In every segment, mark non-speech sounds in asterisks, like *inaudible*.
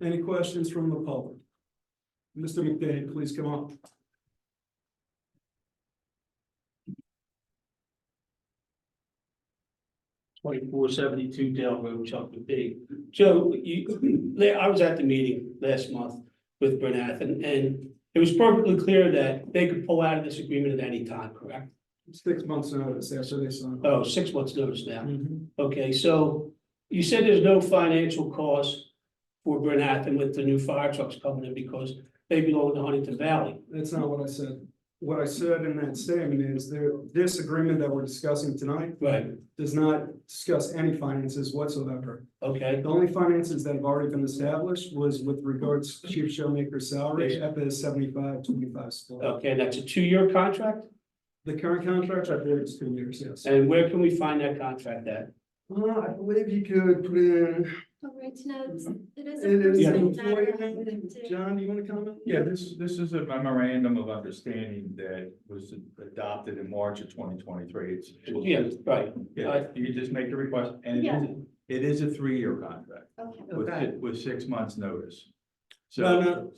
Any questions from the public? Mr. McDade, please come up. twenty-four seventy-two Dale Road, Chocolate Bay. Joe, you, *clears throat* I was at the meeting last month with Bernath, and, and it was perfectly clear that they could pull out of this agreement at any time, correct? Six months notice after they sign. Oh, six months notice now. Mhm. Okay, so you said there's no financial cost for Bernath and with the new fire trucks coming in because they belong to Huntington Valley. That's not what I said. What I said in that statement is there, this agreement that we're discussing tonight Right. does not discuss any finances whatsoever. Okay, The only finances that have already been established was with regards to Chief Showmaker's salary at the seventy-five, twenty-five split. okay, that's a two-year contract, The current contract, I believe is two years, yes. and where can we find that contract at? Uh, I believe you could put in Oh, right, no, it's- it is. a It is Yeah. an personal employee matter, I name. think, too. John, do you wanna comment? Yeah, this, this is a memorandum of understanding that was adopted in March of twenty twenty-three. It's. Yeah, right, Yeah, you can just make the request, and it is, it is a three-year contract Okay. with, Okay. with six months' notice. No, So, no.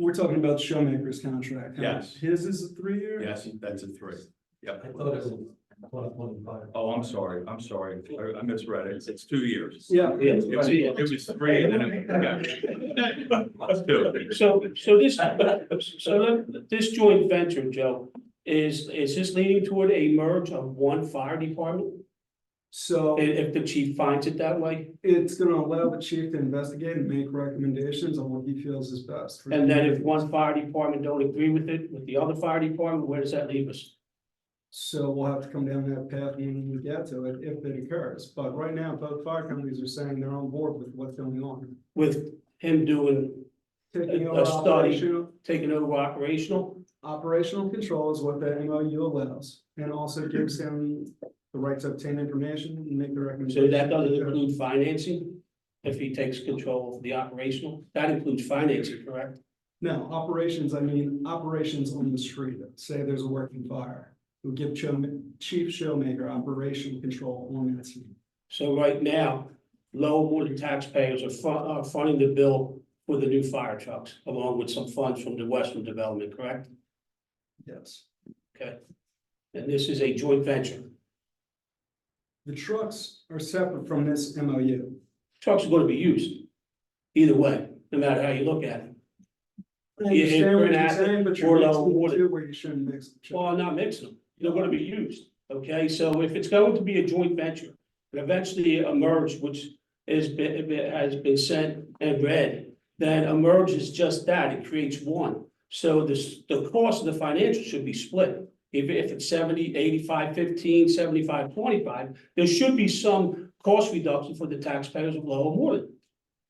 We're talking about Showmaker's contract. huh? Yes. His is a three-year? yes, that's a three. Yep. I thought it was one twenty-five. Oh, I'm sorry, I'm sorry, I I misread it, it's two years. Yeah. yeah. It was, it was three, and then it, yeah. Let's do it. So, so this, so let- this joint venture, Joe, is, is this leading toward a merge of one fire department? So If, if the chief finds it that way, it's gonna allow the chief to investigate and make recommendations on what he feels is best. for and the then if community. one fire department don't agree with it, with the other fire department, where does that leave us? So we'll have to come down that path when we get to it, if it occurs. But right now, both fire companies are saying they're on board with what's going on. With him doing, Taking A- a over study. operational, taking over operational, operational control is what the MOU allows. And also gives him the right to obtain information and make the so recommendations. that doesn't include financing? If he takes control of the operational, that includes financing, correct? No, operations, I mean, operations on the street, say there's a working fire. We give Cho- Chief Showmaker operation control on that scene. So right now, Lowell taxpayers are fu- are funding the bill for the new fire trucks, along with some funds from the Western Development, correct? Yes. And this is a joint venture. The trucks are separate from this MOU. Trucks are gonna be used either way, no matter how you look at it. I Yeah, understand what you're Bernat, saying, but or you're mixing the Lowell. two where you shouldn't mix. the two. Well, I'm not mixing them. They're gonna be used, okay? So if it's going to be a joint venture, and eventually a merge, which is, be- be- has been sent and read, then a merge is just that, it creates one. So this, the cost of the financial should be split. If, if it's 70, 85, 15, 75, 25, there should be some cost reduction for the taxpayers of Lower Moreland.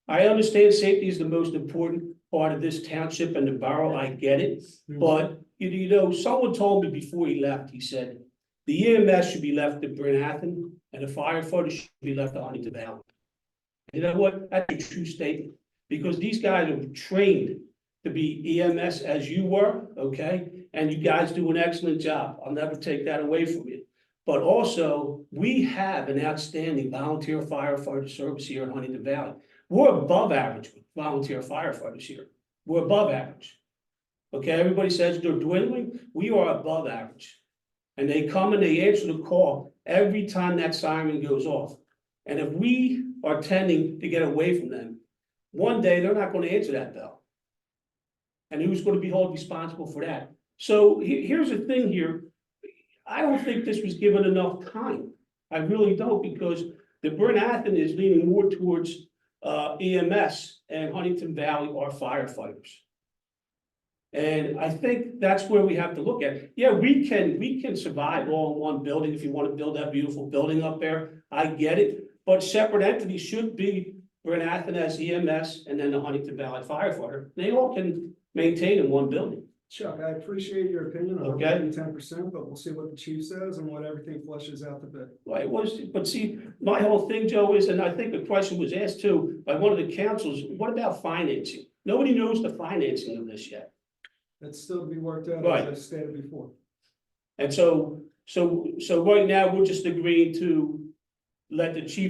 I understand safety is the most important part of this township and the borough, I get it. But, you- you know, someone told me before he left, he said, the EMS should be left to Bernathen and the firefighters should be left to Huntington Valley. You know what? That's a true statement, because these guys are trained to be EMS as you were, okay? And you guys do an excellent job. I'll never take that away from you. But also, we have an outstanding volunteer firefighter service here in Huntington Valley. We're above average with volunteer firefighters here. We're above average. Okay, everybody says they're dwindling, we are above average. And they come and they answer the call every time that siren goes off. And if we are tending to get away from them, one day they're not gonna answer that bell. And who's gonna be held responsible for that? So he- here's the thing here, I don't think this was given enough time. I really don't, because the Burn Athens is leaning more towards uh EMS and Huntington Valley are firefighters. And I think that's where we have to look at. Yeah, we can, we can survive all in one building if you want to build that beautiful building up there. I get it, but separate entities should be Bernathen as EMS E and then the Huntington Valley firefighter. They all can maintain in one building. Chuck, I appreciate your opinion on Okay. ten percent, but we'll see what the chief says and what everything flushes out the bit. Well, it was, but see, my whole thing, Joe, is, and I think the question was asked too by one of the councils, what about financing? Nobody knows the financing of this yet. That's still to be worked out, Right. as I stated before. And so, so, so right now, we're just agreeing to let the chief